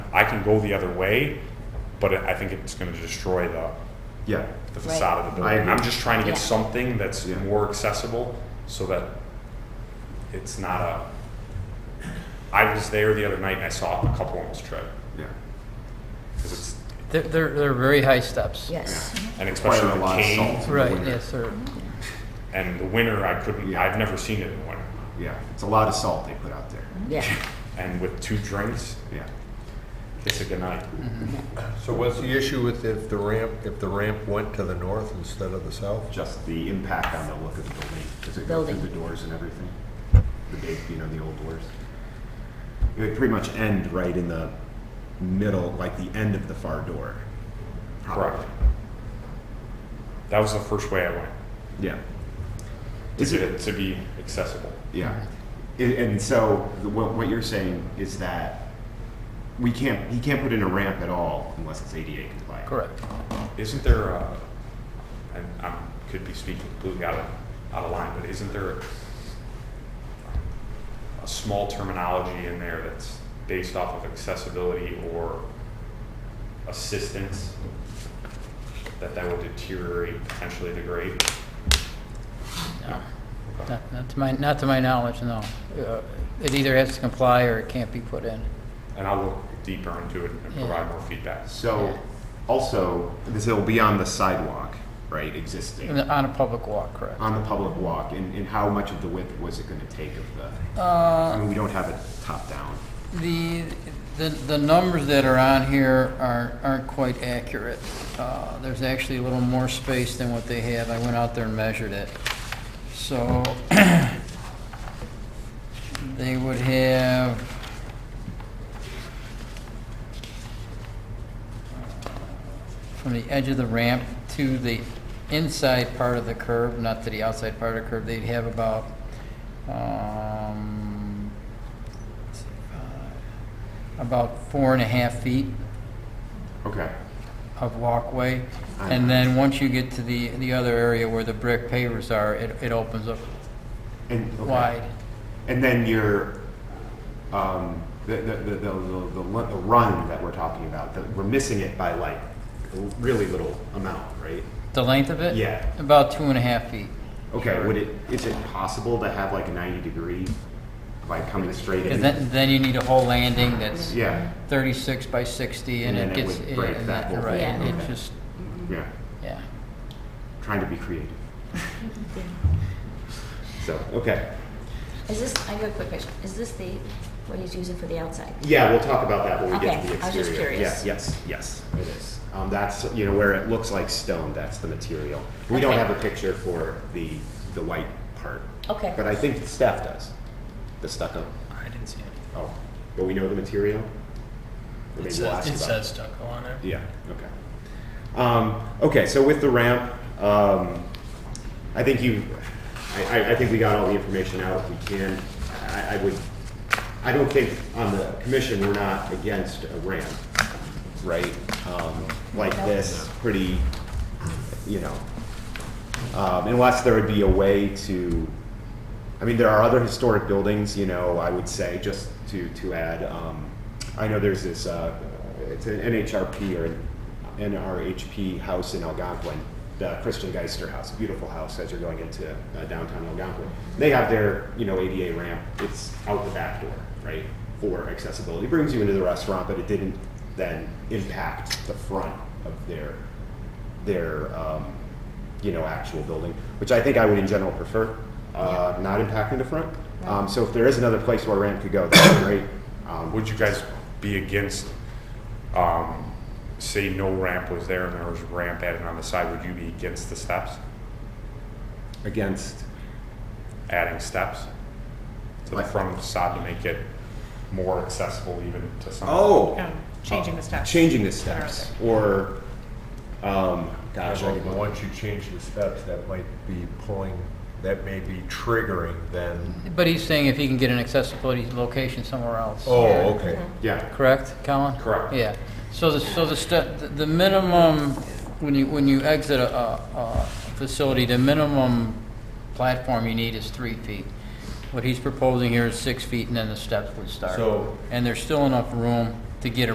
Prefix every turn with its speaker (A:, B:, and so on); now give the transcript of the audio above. A: can go the other way, but it- I think it's gonna destroy the,
B: Yeah,
A: the
C: Right.
A: facade of the
B: I
A: building.
B: agree.
A: I'm just trying to
C: Yeah.
A: get something that's
B: Yeah.
A: more accessible so that it's not a, I was there the other night and I saw a couple almost trip.
B: yeah.
A: 'Cause it's,
D: They're, they're, they're very high steps.
C: Yes.
A: and
B: Quite
A: especially
B: a
A: the
B: lot of salt
A: cane,
B: in the
D: Right,
B: winter.
D: yes, sir.
A: and the winter, I couldn't,
B: Yeah.
A: I've never seen it in the winter.
B: Yeah, it's a lot of salt they put out there.
C: Yeah.
A: And with two drinks,
B: Yeah.
A: it's a good night.
E: So what's the issue with if the ramp, if the ramp went to the north instead of the south?
B: Just the impact on the look of the building as it goes through
C: Building.
B: the doors and everything. The big, you know, the old doors. It would pretty much end right in the middle, like the end of the far door. probably.
A: Correct. That was the first way I went,
B: Yeah.
A: to
B: Is
A: get
B: it,
A: it to be accessible.
B: Yeah, I- and so the- what, what you're saying is that we can't, he can't put in a ramp at all unless it's ADA compliant.
D: Correct.
A: Isn't there a, and I could be speaking completely out of, out of line, but isn't there a, a small terminology in there that's based off of accessibility or assistance? That that would deteriorate, potentially degrade?
D: No. Not, not to my, not to my knowledge, no. Uh, It either has to comply or it can't be put in.
A: And I'll look deeper into it and
D: Yeah.
A: provide more feedback.
B: So, also, this will be on the sidewalk, right,
D: In
B: existing,
D: the- On a public walk, correct.
B: on the public walk, and, and how much of the width was it gonna take of the? I mean, we don't have it top down.
D: The, the, the numbers that are on here are, aren't quite accurate. Uh, There's actually a little more space than what they have. I went out there and measured it. So they would have. uh, From the edge of the ramp to the inside part of the curb, not to the outside part of the curb, they'd have about, um, uh, about four and a half feet
B: Okay,
D: of walkway.
B: Uh-huh.
D: And then once you get to the, the other area where the brick pavers are, it, it opens up
B: and. okay.
D: wide.
B: And then your, um, the, the, the, the, the, the lu- the run that we're talking about, that we're missing it by like a really little amount, right?
D: The length of it?
B: Yeah.
D: About two and a half feet.
B: Okay, would it, is it possible to have like a ninety degree, like coming straight in?
D: And then, then you need a whole landing that's
B: Yeah,
D: thirty-six by sixty and
B: And
D: it
B: then it
D: gets,
B: would
D: yeah,
B: break
D: and
B: that
D: that,
B: whole
D: right,
C: thing.
D: it
B: Okay.
D: just,
B: yeah,
D: yeah.
B: trying to be creative. So, okay,
C: Is this, I have a quick question. Is this the, what he's using for the outside?
B: yeah, we'll talk about that when we get to the exterior.
C: Okay, I was just curious.
B: Yeah, yes, yes, it is. Um, that's, you know, where it looks like stone, that's the material. We don't
C: Okay.
B: have a picture for the, the white part,
C: Okay.
B: but I think the staff does, the stucco.
F: I didn't see it.
B: Oh, but we know the material? Or maybe
F: It
B: we'll
F: says,
B: ask
F: it
B: about
F: says stucco on it.
B: Yeah, okay. Um, okay, so with the ramp, um, I think you, I, I, I think we got all the information out if we can. I, I would, I don't think on the commission, we're not against a ramp, right? Um, like this, pretty, you know, um, unless there would be a way to, I mean, there are other historic buildings, you know, I would say, just to, to add, um, I know there's this, uh, it's an NHRP or an NRHP house in Algonquin, the Christian Geister House, beautiful house as you're going into uh, downtown Algonquin. They have their, you know, ADA ramp, it's out the back door, right, for accessibility. It brings you into the restaurant, but it didn't then impact the front of their, their, um, you know, actual building, which I think I would in general prefer, uh, not impacting the front. Um, so if there is another place where ramp could go, that'd be great. Um,
A: Would you guys be against, um, say no ramp was there and there was a ramp added on the side, would you be against the steps,
B: Against,
A: adding steps? To the
B: Like-
A: front of the facade to make it more accessible even to some.
B: oh,
G: Um, Changing the steps.
B: changing the steps, or, um, gosh, I
E: Well,
B: could-
E: Once you change the steps, that might be pulling, that may be triggering then.
D: But he's saying if he can get an accessibility location somewhere else.
E: Oh, okay.
B: yeah,
D: Correct, Colin?
A: Correct.
D: Yeah. So the, so the step, the- the minimum, when you, when you exit a, a a facility, the minimum platform you need is three feet. What he's proposing here is six feet and then the steps would start.
E: So-
D: And there's still enough room to get